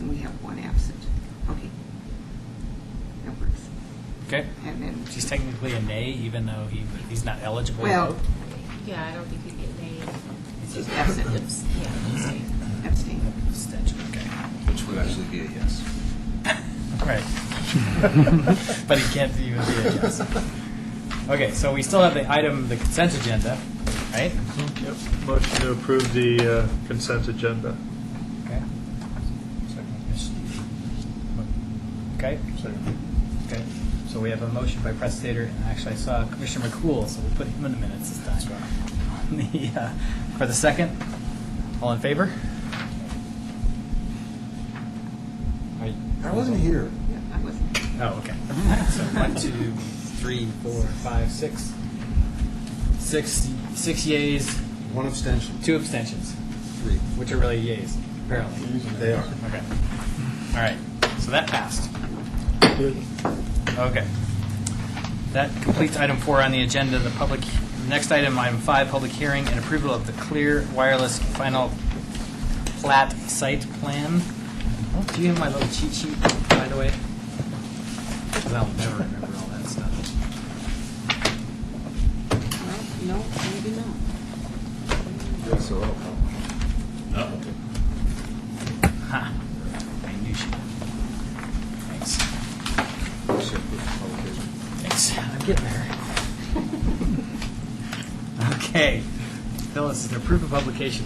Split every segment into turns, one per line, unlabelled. and we have one absent. Okay. That works.
Okay.
And then,
He's technically a nay, even though he, he's not eligible. to
Well-
vote.
Yeah, I don't think you'd get named.
just absent,
Yeah.
abstain.
Abstention, okay.
Which would actually be a yes.
Right. But he can't even be a yes. Okay, so we still have the item, the consent agenda, right?
Yep. Motion to approve the uh, consent agenda.
Okay. Okay, okay. So we have a motion by Press Stater, and actually I saw Commissioner McCool, so we'll put him in the minutes this time. On the, uh, For the second, all in favor? I
here.
Yeah, I wasn't.
Oh, okay. So one, two, three, four, five, six. Six, six yays,
One abstention.
two abstentions,
Three.
which are really yays, apparently.
They are.
Okay. All right. So that passed. Okay. That completes item four on the agenda. The public, next item, item five, public hearing and approval of the Clear Wireless Final Plat Site Plan. Oh, Do you have my little cheat sheet, by the way? 'Cause I'll never remember all that stuff.
Well, no, maybe not.
Yes, so, oh,
Ha. I knew she would. Thanks.
oh. Should approve the publication.
Thanks. I'm getting there. okay. Phyllis, the proof of publication,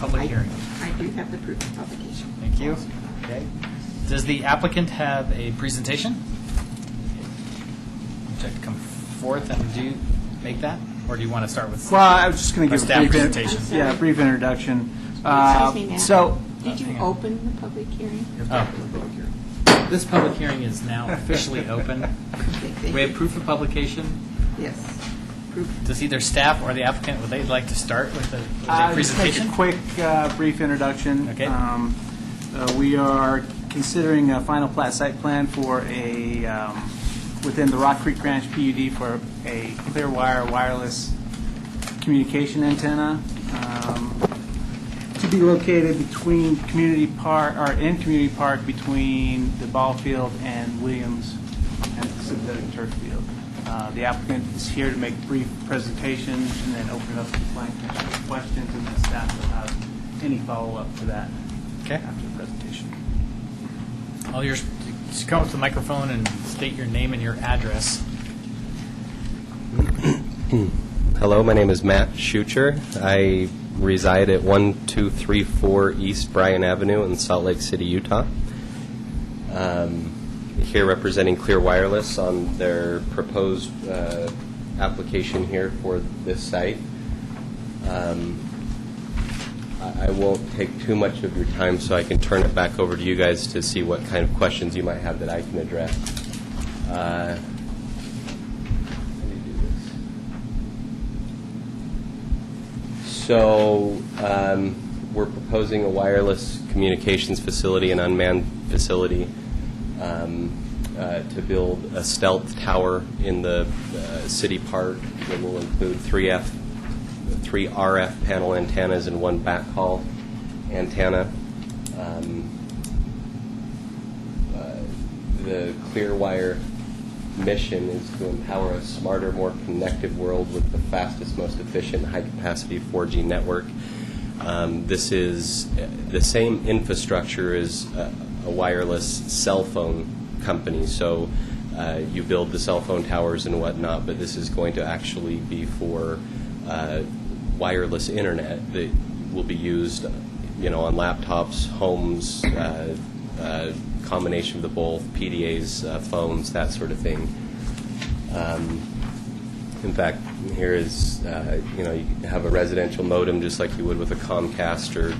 public hearing.
I do have the proof of publication.
Thank you. Okay. Does the applicant have a presentation? Would you like to come forth and do make that? Or do you want to start with?
Well, I was just going
A
to give
staff
a brief, in-
presentation.
yeah, a brief introduction. Uh,
Excuse me, Matt.
So,
Did you
hang on.
open the public hearing?
Oh, this public hearing is now officially open. We have proof of publication.
Yes. Proof.
Does either staff or the applicant, would they like to start with a- with a
Uh, just
presentation?
a quick, uh, brief introduction.
Okay.
Um, uh, We are considering a final plat site plan for a, um, within the Rock Creek Ranch PUD for a clear wire wireless communication antenna um, to be located between Community Park, or in Community Park, between the ball field and Williams and synthetic turf field. Uh, The applicant is here to make brief presentations and then open it up to the planning commission for questions, and the staff will have any follow-up to that
Okay.
after the presentation.
All yours, just come up to the microphone and state your name and your address.
Hmm. Hello, my name is Matt Schucher. I reside at 1234 East Bryan Avenue in Salt Lake City, Utah. Um, Here representing Clear Wireless on their proposed uh, application here for this site. Um, I I won't take too much of your time, so I can turn it back over to you guys to see what kind of questions you might have that I can address. Uh, Let me do this. So, um, we're proposing a wireless communications facility, an unmanned facility, um, uh, to build a stealth tower in the uh, city park that will include three F, three RF panel antennas and one backhaul antenna. Um, uh, the Clearwire mission is to empower a smarter, more connected world with the fastest, most efficient, high-capacity 4G network. Um, this is uh, the same infrastructure as a, a wireless cell phone company. So uh, you build the cell phone towers and whatnot, but this is going to actually be for uh, wireless internet that will be used, you know, on laptops, homes, uh, uh, combination of the both, PDAs, uh, phones, that sort of thing. Um, in fact, here is, uh, you know, you have a residential modem just like you would with a Comcast or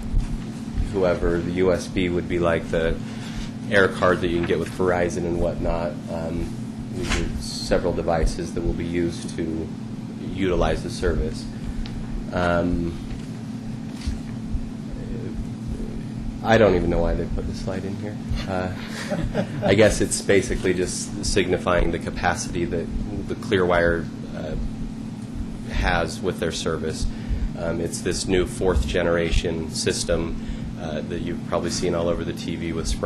whoever. The USB would be like the air card that you can get with Verizon and whatnot. Um, these are several devices that will be used to utilize the service. Um, I don't even know why they put the slide in here. Uh, I guess it's basically just signifying the capacity that the Clearwire uh, has with their service. Um, It's this new fourth-generation system uh, that you've probably seen all over the TV with Sprint